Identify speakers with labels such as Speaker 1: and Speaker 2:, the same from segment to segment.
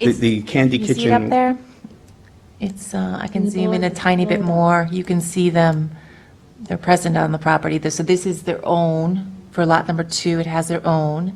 Speaker 1: The- The Candy
Speaker 2: You see it up
Speaker 1: Kitchen,
Speaker 2: there? It's, uh, I can zoom in a tiny bit more. You can see them, they're present on the property. This- So this is their own. For lot number two, it has their own.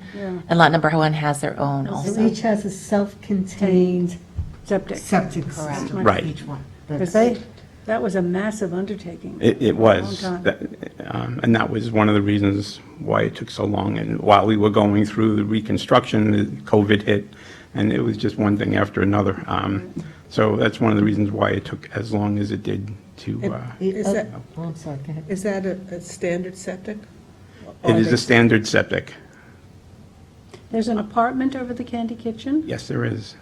Speaker 2: And lot number one has their own
Speaker 3: So
Speaker 2: also.
Speaker 3: each has a self-contained
Speaker 4: septic,
Speaker 3: septic
Speaker 2: Correct.
Speaker 3: system.
Speaker 1: Right.
Speaker 3: Each one.
Speaker 4: because
Speaker 3: That's-
Speaker 4: they, that was a massive undertaking.
Speaker 1: it it was,
Speaker 4: Long time.
Speaker 1: that- um, and that was one of the reasons why it took so long. And while we were going through the reconstruction, COVID hit, and it was just one thing after another. Um, So that's one of the reasons why it took as long as it did to, uh,
Speaker 5: Is
Speaker 3: Oh,
Speaker 5: that,
Speaker 3: oh, I'm sorry, go ahead.
Speaker 5: is that a, a standard septic?
Speaker 1: it is a standard septic.
Speaker 4: There's an apartment over the Candy Kitchen,
Speaker 1: Yes, there is.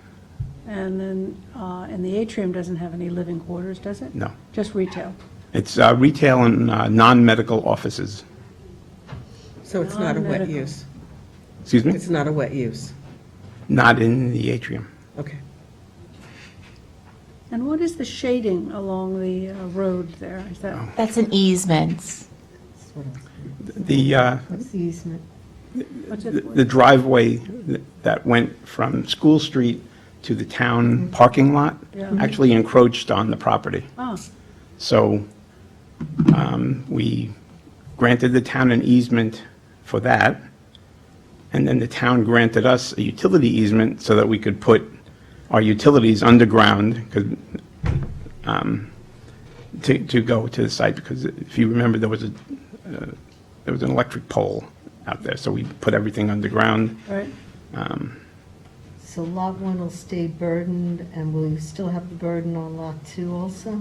Speaker 4: and then, uh, and the atrium doesn't have any living quarters, does it?
Speaker 1: No.
Speaker 4: Just retail.
Speaker 1: It's uh, retail and uh, non-medical offices.
Speaker 5: So it's not a wet
Speaker 4: Non-medical.
Speaker 5: use?
Speaker 1: Excuse me?
Speaker 5: It's not a wet use?
Speaker 1: Not in the atrium.
Speaker 5: Okay.
Speaker 4: And what is the shading along the uh, road there? Is that,
Speaker 1: Oh.
Speaker 2: That's an easement.
Speaker 3: Sort of.
Speaker 1: The, uh,
Speaker 3: What's the easement?
Speaker 4: what's
Speaker 1: the
Speaker 4: it,
Speaker 1: the driveway th- that went from School Street to the town parking lot
Speaker 4: Yeah.
Speaker 1: actually encroached on the property.
Speaker 4: oh,
Speaker 1: So um, we granted the town an easement for that, and then the town granted us a utility easement so that we could put our utilities underground, 'cause, um, to, to go to the site, because if you remember, there was a, uh, there was an electric pole out there, so we put everything underground.
Speaker 4: right,
Speaker 3: So lot one will stay burdened, and will you still have the burden on lot two also?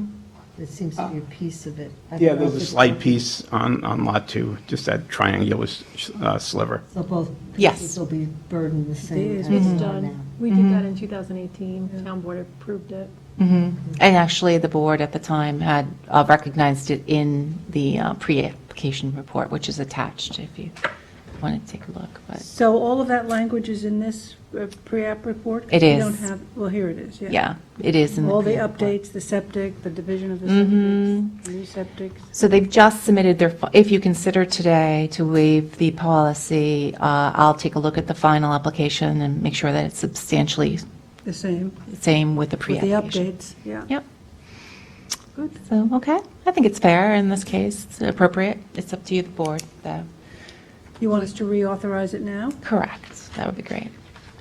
Speaker 3: There seems to be a piece of it. I don't
Speaker 1: Yeah,
Speaker 3: know
Speaker 1: there's
Speaker 3: if
Speaker 1: a
Speaker 3: it's-
Speaker 1: slight piece on, on Lot 2, just that triangular s- uh, sliver.
Speaker 3: So both
Speaker 2: Yes.
Speaker 3: pieces will be burdened the same as
Speaker 6: It's
Speaker 3: they
Speaker 6: been
Speaker 3: are now.
Speaker 6: done. Mm-hmm. We did that in 2018, town board approved it.
Speaker 2: Mm-hmm. And actually, the board at the time had uh, recognized it in the uh, pre-application report, which is attached if you want to take a look. But
Speaker 4: so all of that language is in this uh, pre-app report? 'Cause
Speaker 2: It
Speaker 4: We don't
Speaker 2: is.
Speaker 4: have, well, here it is, yeah.
Speaker 2: yeah, it is in the Mm-hmm.
Speaker 4: All the
Speaker 2: pre-report.
Speaker 4: updates, the septic, the division of the septics, new septics.
Speaker 2: So they've just submitted their, fi- if you consider today to waive the policy, uh, I'll take a look at the final application and make sure that it's substantially
Speaker 4: The same,
Speaker 2: the same with the
Speaker 4: with the
Speaker 2: pre-application.
Speaker 4: updates, yeah.
Speaker 2: Yep. Good. So, okay, I think it's fair in this case, it's appropriate, it's up to you, the board, though.
Speaker 4: You want us to reauthorize it now,
Speaker 2: Correct, that would be great.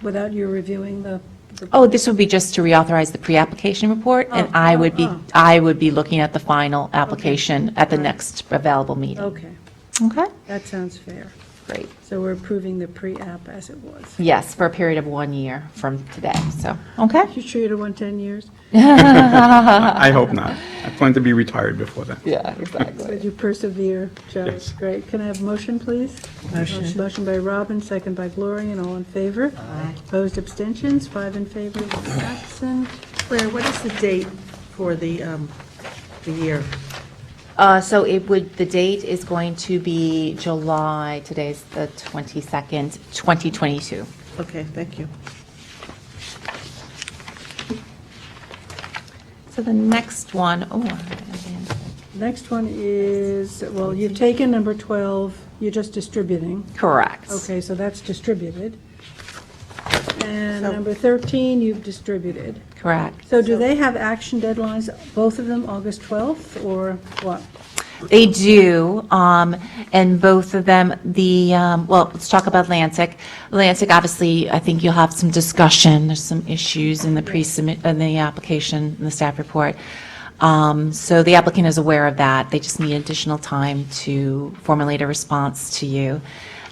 Speaker 4: without you reviewing the? the-
Speaker 2: Oh, this would be just to reauthorize the pre-application report, and
Speaker 4: Oh,
Speaker 2: I
Speaker 4: oh,
Speaker 2: would be,
Speaker 4: oh.
Speaker 2: I would be looking at the final application at the next available meeting.
Speaker 4: Okay,
Speaker 2: Okay,
Speaker 4: that sounds fair.
Speaker 2: great.
Speaker 4: So we're approving the pre-app as it was.
Speaker 2: Yes, for a period of one year from today, so, okay?
Speaker 4: You sure you don't want 10 years?
Speaker 1: I I hope not. I plan to be retired before then.
Speaker 2: Yeah, exactly.
Speaker 4: Would you persevere, Joe?
Speaker 1: Yes.
Speaker 4: Great. Can I have a motion, please? Motion. Motion by Robin, second by Gloria, and all in favor? Aye. Opposed, abstentions, five in favor, one absent.
Speaker 5: Claire, what is the date for the, um, the year?
Speaker 2: Uh, so it would, the date is going to be July, today's the 22nd, 2022.
Speaker 5: Okay, thank you.
Speaker 2: So the next one, oh, I have it.
Speaker 4: Next one is, well, you've taken number 12, you're just distributing.
Speaker 2: correct.
Speaker 4: Okay, so that's distributed. And number 13, you've distributed.
Speaker 2: Correct.
Speaker 4: So do they have action deadlines, both of them, August 12th, or what?
Speaker 2: They do, um, and both of them, the, um, well, let's talk about Atlantic. Atlantic, obviously, I think you'll have some discussion, there's some issues in the pre-submit, in the application, in the staff report. Um, So the applicant is aware of that, they just need additional time to formulate a response to you.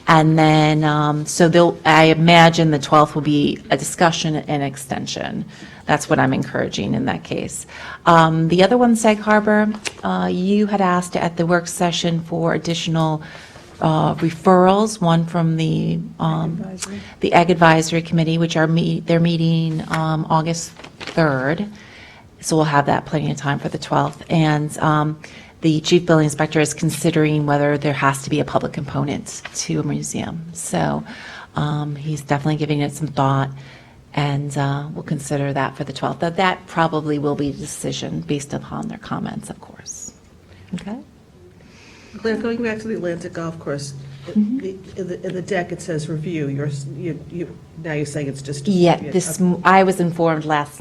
Speaker 2: And then, um, so they'll, I imagine the 12th will be a discussion and extension. That's what I'm encouraging in that case. Um, The other one, Sag Harbor, uh, you had asked at the work session for additional uh, referrals, one from the, um, the Ag Advisory Committee, which are, me- they're meeting um, August 3rd. So we'll have that plenty of time for the 12th. And um, the chief building inspector is considering whether there has to be a public component to a museum. So um, he's definitely giving it some thought, and uh, we'll consider that for the 12th. But that probably will be a decision based upon their comments, of course. Okay?
Speaker 5: Claire, going back to the Atlantic Golf Course, the, the- in the deck, it says review, you're, s- you, you, now you're saying it's just.
Speaker 2: Yeah, this, m- I was informed last night.